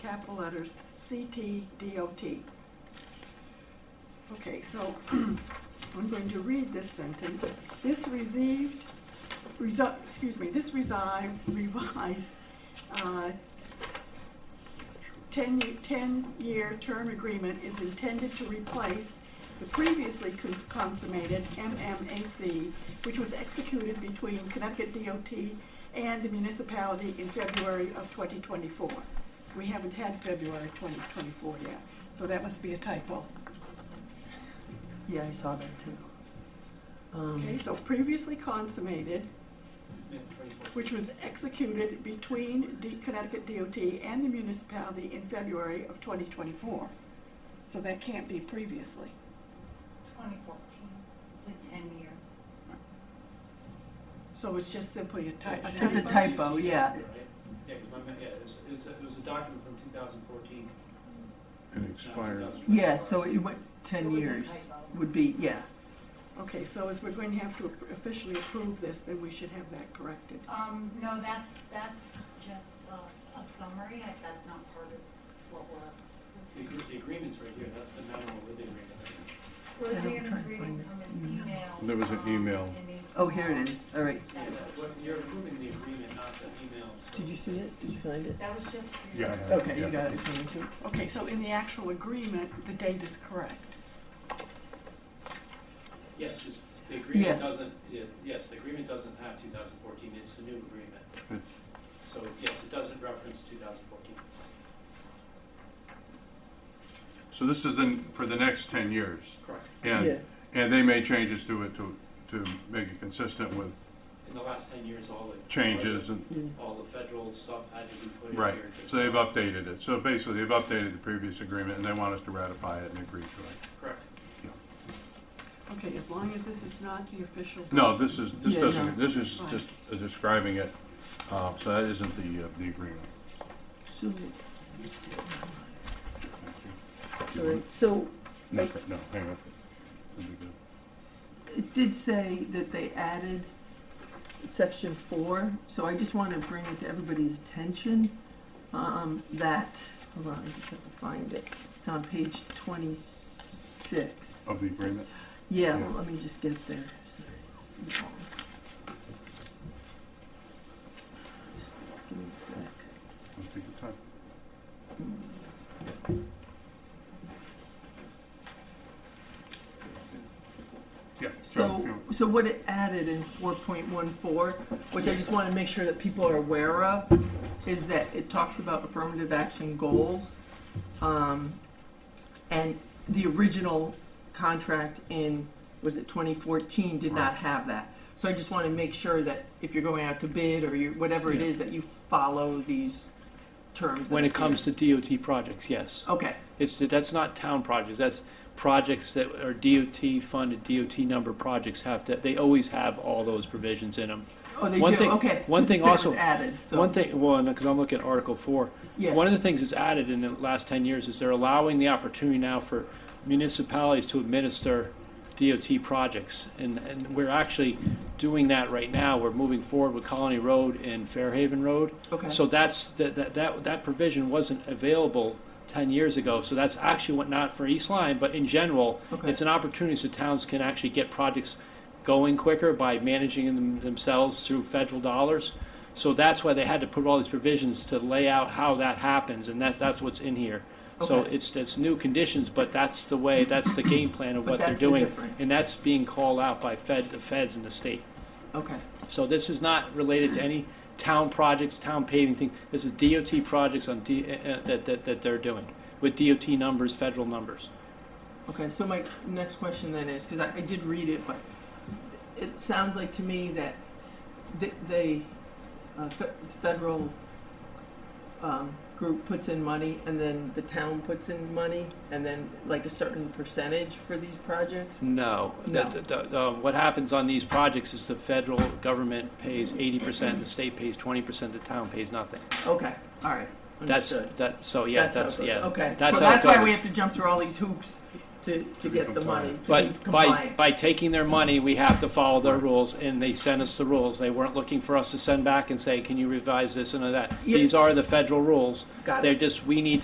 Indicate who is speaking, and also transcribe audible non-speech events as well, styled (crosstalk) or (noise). Speaker 1: capital letters, CTDOT. Okay, so (clears throat) I'm going to read this sentence. This received, resi- excuse me, this resi- revised uh, 10 ye- 10-year term agreement is intended to replace the previously cons- consummated MMAC, which was executed between Connecticut DOT and the municipality in February of 2024. We haven't had February 2024 yet, so that must be a typo.
Speaker 2: Yeah, I saw that too. Um,
Speaker 1: Okay, so previously consummated,
Speaker 3: Yeah, 24.
Speaker 1: which was executed between D- Connecticut DOT and the municipality in February of 2024. So that can't be previously.
Speaker 4: 2014, it's a 10-year.
Speaker 1: So it's just simply a ty- a typo.
Speaker 2: It's a typo, yeah.
Speaker 3: Right? Yeah, 'cause my, ma- yeah, it's, it's, a- it was a document from 2014.
Speaker 5: And expires.
Speaker 2: Yeah, so it went
Speaker 4: It
Speaker 2: 10
Speaker 4: was a
Speaker 2: years
Speaker 4: typo.
Speaker 2: would be, yeah.
Speaker 1: Okay, so as we're going to have to officially approve this, then we should have that corrected.
Speaker 4: Um, no, that's, that's just a, a summary, I- that's not part of what we're.
Speaker 3: The agre- The agreement's right here, that's the memo with the agreement.
Speaker 2: I'm trying
Speaker 4: Roseanne is
Speaker 2: to
Speaker 4: reading
Speaker 2: find this
Speaker 4: from an
Speaker 2: email.
Speaker 4: email.
Speaker 5: There was an
Speaker 4: um,
Speaker 5: email.
Speaker 4: Denise
Speaker 2: Oh, here it
Speaker 4: Moore.
Speaker 2: is. All right.
Speaker 3: Yeah,
Speaker 4: That's-
Speaker 3: that- what- You're approving the agreement, not the email. so-
Speaker 2: Did you see it? Did you find it?
Speaker 4: That was just. for your-
Speaker 5: Yeah, I have
Speaker 2: Okay, you
Speaker 5: yeah.
Speaker 2: got it. Just wanted to-
Speaker 1: Okay, so in the actual agreement, the date is correct.
Speaker 3: Yes, just, the agreement
Speaker 2: Yeah.
Speaker 3: doesn't, yeah, yes, the agreement doesn't have 2014, it's the new agreement.
Speaker 5: Right.
Speaker 3: So, yes, it doesn't reference 2014.
Speaker 5: So this is then for the next ten years,
Speaker 3: Correct.
Speaker 2: Yeah.
Speaker 5: and, and they made changes to it to, to make it consistent with
Speaker 3: In the last 10 years, all the.
Speaker 5: changes and,
Speaker 2: Yeah.
Speaker 3: All the federal stuff had to be put in here.
Speaker 5: right.
Speaker 3: to-
Speaker 5: So they've updated it. So basically, they've updated the previous agreement, and they want us to ratify it and agree to it.
Speaker 3: Correct.
Speaker 1: Okay, as long as this is not the official.
Speaker 5: No, this is, this
Speaker 2: Yeah,
Speaker 5: doesn't,
Speaker 2: no.
Speaker 5: this is just describing it, uh, so that isn't the, uh, the agreement.
Speaker 2: So, let's see.
Speaker 5: Do you
Speaker 2: All
Speaker 5: want-
Speaker 2: right, so
Speaker 5: No, no, hang on. That'd be good.
Speaker 2: it did say that they added section four, so I just want to bring it to everybody's attention, um, that, hold on, I just have to find it. It's on page twenty-six.
Speaker 5: Of the agreement?
Speaker 2: Yeah,
Speaker 5: Yeah.
Speaker 2: well, let me just get there. Sorry, it's long. Give me a sec.
Speaker 5: Let's take your time. Yeah.
Speaker 2: So,
Speaker 5: yeah.
Speaker 2: so what it added in four point one four, which I just want to make sure that people are aware of, is that it talks about affirmative action goals. Um, and the original contract in, was it twenty fourteen, did not
Speaker 5: Right.
Speaker 2: have that. So I just want to make sure that if you're going out to bid or you, whatever it
Speaker 6: Yeah.
Speaker 2: is, that you follow these terms.
Speaker 6: When it comes to DOT projects, yes.
Speaker 2: Okay,
Speaker 6: It's, that's not town projects, that's projects that are DOT funded, DOT number projects have to, they always have all those provisions in them.
Speaker 2: oh, they
Speaker 6: One
Speaker 2: do,
Speaker 6: thing-
Speaker 2: okay.
Speaker 6: one
Speaker 2: This
Speaker 6: thing
Speaker 2: is- it was
Speaker 6: also-
Speaker 2: Added, so.
Speaker 6: One thing, well, because I'm looking at Article 4,
Speaker 2: Yeah.
Speaker 6: one of the things that's added in the last 10 years is they're allowing the opportunity now for municipalities to administer DOT projects. And, and we're actually doing that right now. We're moving forward with Colony Road and Fairhaven Road.
Speaker 2: Okay.
Speaker 6: So that's, that, that- that, that provision wasn't available 10 years ago. So that's actually what, not for East Lyme, but in general,
Speaker 2: Okay.
Speaker 6: it's an opportunity so towns can actually get projects going quicker by managing them themselves through federal dollars. So that's why they had to put all these provisions to lay out how that happens, and that's, that's what's in here. So
Speaker 2: Okay.
Speaker 6: it's, it's new conditions, but that's the way, that's the game plan of
Speaker 2: But
Speaker 6: what they're
Speaker 2: that's
Speaker 6: doing.
Speaker 2: different.
Speaker 6: And that's being called out by Fed, the feds and the state.
Speaker 2: Okay,
Speaker 6: So this is not related to any town projects, town paving thing. This is DOT projects on D, uh, uh, that, that, that they're doing with DOT numbers, federal numbers.
Speaker 2: Okay, so my next question then is, because I, I did read it, but it sounds like to me that th- they, uh, fe- federal um, group puts in money, and then the town puts in money, and then like a certain percentage for these projects?
Speaker 6: Mm. No.
Speaker 2: No.
Speaker 6: The- the- the- uh, what happens on these projects is the federal government pays eighty percent, the state pays twenty percent, the town pays nothing.
Speaker 2: Okay, all right,
Speaker 6: That's,
Speaker 2: understood.
Speaker 6: that, so, yeah,
Speaker 2: how it
Speaker 6: that's,
Speaker 2: goes.
Speaker 6: yeah.
Speaker 2: Okay, so
Speaker 6: That's how it
Speaker 2: that's why we
Speaker 6: goes.
Speaker 2: have to jump through all these hoops to, to
Speaker 5: To be
Speaker 2: get the money. to be
Speaker 6: But by,
Speaker 2: compliant.
Speaker 6: by taking their money, we have to follow their
Speaker 5: Right.
Speaker 6: rules, and they sent us the rules. They weren't looking for us to send back and say, can you revise this and that?
Speaker 2: Yeah.
Speaker 6: These are the federal rules.
Speaker 2: Got it.
Speaker 6: They're just, we need